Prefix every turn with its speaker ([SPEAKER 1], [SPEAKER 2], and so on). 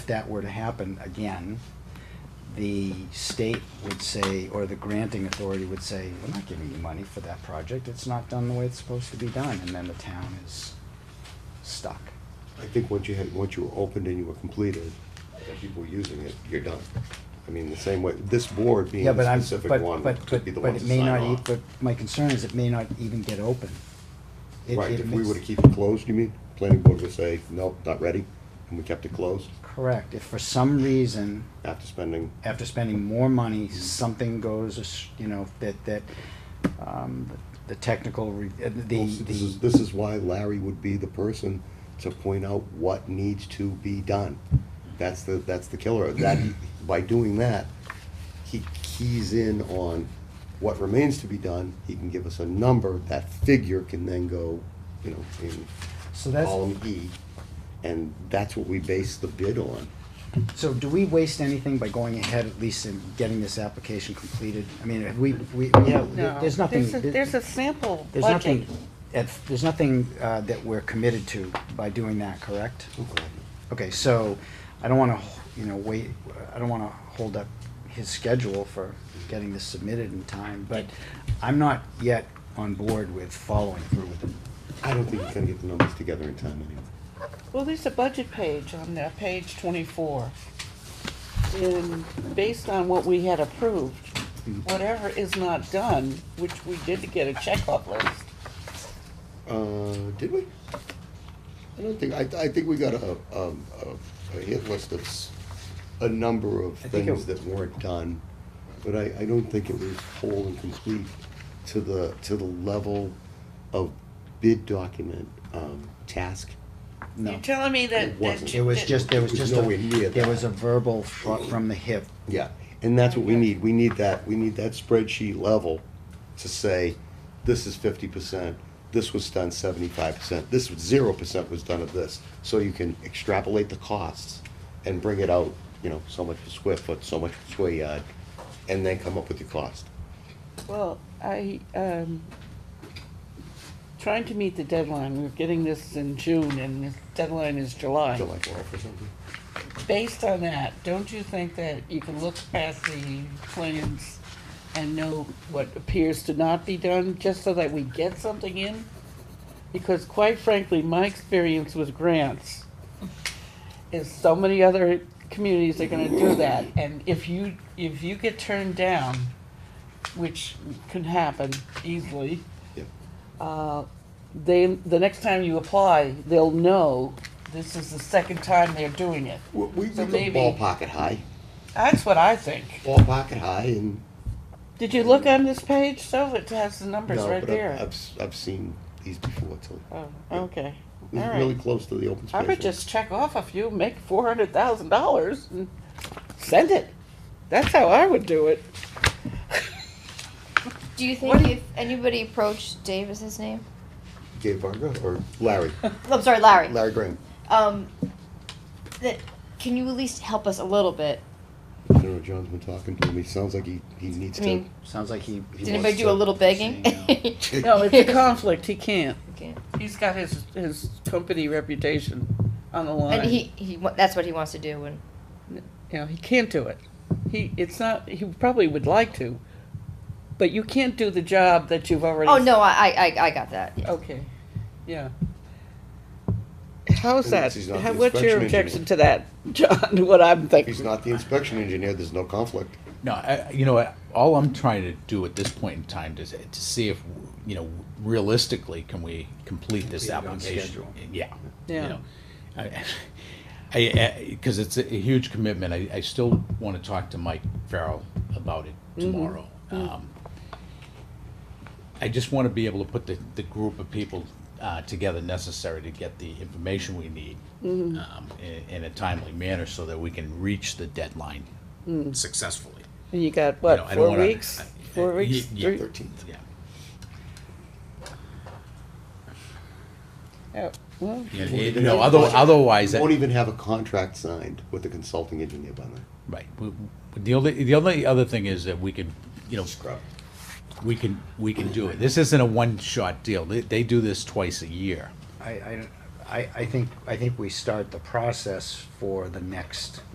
[SPEAKER 1] that were to happen again, the state would say, or the granting authority would say, we're not giving you money for that project, it's not done the way it's supposed to be done, and then the town is stuck.
[SPEAKER 2] I think once you had, once you were opened and you were completed, and people were using it, you're done. I mean, the same way, this board being
[SPEAKER 1] Yeah, but
[SPEAKER 2] the
[SPEAKER 1] I'm,
[SPEAKER 2] specific
[SPEAKER 1] but,
[SPEAKER 2] one
[SPEAKER 1] but,
[SPEAKER 2] could be the
[SPEAKER 1] but, but
[SPEAKER 2] one to
[SPEAKER 1] it may
[SPEAKER 2] sign
[SPEAKER 1] not, e-
[SPEAKER 2] off.
[SPEAKER 1] but my concern is it may not even get open. It-
[SPEAKER 2] Right,
[SPEAKER 1] it
[SPEAKER 2] if we
[SPEAKER 1] may-
[SPEAKER 2] were to keep it closed, you mean, planning board would say, nope, not ready, and we kept it closed
[SPEAKER 1] Correct, if for some reason,
[SPEAKER 2] after spending,
[SPEAKER 1] after spending more money, something goes, as- you know, that, that, um, the technical, re- uh, the,
[SPEAKER 2] Well, see, this is,
[SPEAKER 1] the,
[SPEAKER 2] this is why Larry would be the person to point out what needs to be done. That's the, that's the killer, that, by doing that, he keys in on what remains to be done, he can give us a number, that figure can then go, you know, in
[SPEAKER 1] so that's,
[SPEAKER 2] column E, and that's what we base the bid on.
[SPEAKER 1] so do we waste anything by going ahead at least and getting this application completed? I mean, have we, we, we have,
[SPEAKER 3] No,
[SPEAKER 1] there's nothing.
[SPEAKER 3] a- There's a sample
[SPEAKER 1] There's
[SPEAKER 3] budget.
[SPEAKER 1] nothing, at- there's nothing, uh, that we're committed to by doing that, correct? Okay, so I don't want to, you know, wait, I don't want to hold up his schedule for getting this submitted in time, but I'm not yet on board with following through with it.
[SPEAKER 2] I don't think he's gonna get the numbers together in time anyway.
[SPEAKER 3] Well, there's a budget page on there, page twenty-four. And based on what we had approved,
[SPEAKER 1] Hmm.
[SPEAKER 3] whatever is not done, which we did get a checkoff list.
[SPEAKER 2] Uh, did we? I don't think, I, I think we got a, um, a, a hit list of s- a number of
[SPEAKER 1] I think it-
[SPEAKER 2] things that weren't done, but I, I don't think it was whole and complete to the, to the level of bid document, um, task.
[SPEAKER 1] No.
[SPEAKER 3] You're telling me that.
[SPEAKER 2] It
[SPEAKER 3] that-
[SPEAKER 2] wasn't.
[SPEAKER 1] It was just, there was
[SPEAKER 2] It was
[SPEAKER 1] just, a-
[SPEAKER 2] nowhere near
[SPEAKER 1] there
[SPEAKER 2] that.
[SPEAKER 1] was a verbal fro- from the hip.
[SPEAKER 2] Yeah, and that's what we need, we need that, we need that spreadsheet level to say, this is fifty percent, this was done seventy-five percent, this was zero percent was done of this. So you can extrapolate the costs and bring it out, you know, so much per square foot, so much per square yard, and then come up with your cost.
[SPEAKER 3] Well, I, um, trying to meet the deadline, we're getting this in June and the deadline is
[SPEAKER 2] July twelfth or something.
[SPEAKER 3] Based on that, don't you think that you can look past the plans and know what appears to not be done, just so that we get something in? Because quite frankly, my experience with grants is so many other communities are gonna do that, and if you, if you get turned down, which can happen easily,
[SPEAKER 2] Yeah.
[SPEAKER 3] uh, they, the next time you apply, they'll know this is the second time they're doing it.
[SPEAKER 2] We, we we
[SPEAKER 3] So
[SPEAKER 2] go
[SPEAKER 3] maybe-
[SPEAKER 2] ballpark it high,
[SPEAKER 3] That's what I think.
[SPEAKER 2] ballpark it high and.
[SPEAKER 3] Did you look on this page, so it has the numbers
[SPEAKER 2] no,
[SPEAKER 3] right
[SPEAKER 2] but I've-
[SPEAKER 3] there?
[SPEAKER 2] I've, s- I've seen these before too.
[SPEAKER 3] Oh, okay, all
[SPEAKER 2] It's Really
[SPEAKER 3] right.
[SPEAKER 2] close to the open space.
[SPEAKER 3] I
[SPEAKER 2] one.
[SPEAKER 3] would just check off a few, make four hundred thousand dollars and send it. That's how I would do it.
[SPEAKER 4] Do you
[SPEAKER 3] What
[SPEAKER 4] think
[SPEAKER 3] do
[SPEAKER 4] if anybody approached Dave is his name?
[SPEAKER 2] Dave Varga or Larry,
[SPEAKER 4] I'm sorry, Larry.
[SPEAKER 2] Larry Graham.
[SPEAKER 4] Um, that can you at least help us a little bit?
[SPEAKER 2] I don't know, John's been talking to him, he sounds like he, he needs
[SPEAKER 4] I
[SPEAKER 2] to.
[SPEAKER 4] mean,
[SPEAKER 1] Sounds like he. he
[SPEAKER 4] did anybody
[SPEAKER 1] wants
[SPEAKER 4] do a
[SPEAKER 1] to
[SPEAKER 4] little begging?
[SPEAKER 1] say no.
[SPEAKER 3] No, it's a conflict, he can't.
[SPEAKER 4] Okay.
[SPEAKER 3] He's got his, his company reputation on the line.
[SPEAKER 4] And he, he wa- that's what he wants to do. And
[SPEAKER 3] you know, he can't do it. He, it's not, he probably would like to, but you can't do the job that you've already.
[SPEAKER 4] oh no, I I, I- I got that. Yeah.
[SPEAKER 3] Okay, yeah. How's that?
[SPEAKER 2] Unless he's not
[SPEAKER 3] How-
[SPEAKER 2] the
[SPEAKER 3] What's your
[SPEAKER 2] inspection
[SPEAKER 3] objection to that, John, what I'm
[SPEAKER 2] If he's
[SPEAKER 3] thinking?
[SPEAKER 2] not the inspection engineer, there's no conflict.
[SPEAKER 5] No, I, I- you know, I- all I'm trying to do at this point in time is eh, to see if, you know, realistically, can we complete this
[SPEAKER 1] Complete it on
[SPEAKER 5] application?
[SPEAKER 1] schedule.
[SPEAKER 5] Yeah. you
[SPEAKER 3] Yeah.
[SPEAKER 5] know. I- I, because it's a huge commitment. I, I still want to talk to Mike Farrell about it tomorrow. Um, I just want to be able to put the, the group of people uh, together necessary to get the information we need um, in, in a timely manner so that we can reach the deadline successfully.
[SPEAKER 3] And you got,
[SPEAKER 5] know, I
[SPEAKER 3] what,
[SPEAKER 5] don't
[SPEAKER 3] four
[SPEAKER 5] wanna-
[SPEAKER 3] weeks?
[SPEAKER 5] I-
[SPEAKER 3] Four
[SPEAKER 5] I-
[SPEAKER 3] weeks?
[SPEAKER 5] yeah,
[SPEAKER 3] Three-
[SPEAKER 2] Thirteenth.
[SPEAKER 5] Yeah.
[SPEAKER 3] oh, Well,
[SPEAKER 5] Yeah, it- No, other- otherwise,
[SPEAKER 2] You won't
[SPEAKER 5] that-
[SPEAKER 2] even have a contract signed with the consulting engineer by then.
[SPEAKER 5] right. We- we- The only, the only other thing is that we can, you know,
[SPEAKER 2] Scrub.
[SPEAKER 5] we can, we can do it. This isn't a one-shot deal. They, they do this twice a year.
[SPEAKER 1] I, I, don't- I, I think, I think we start the process for the next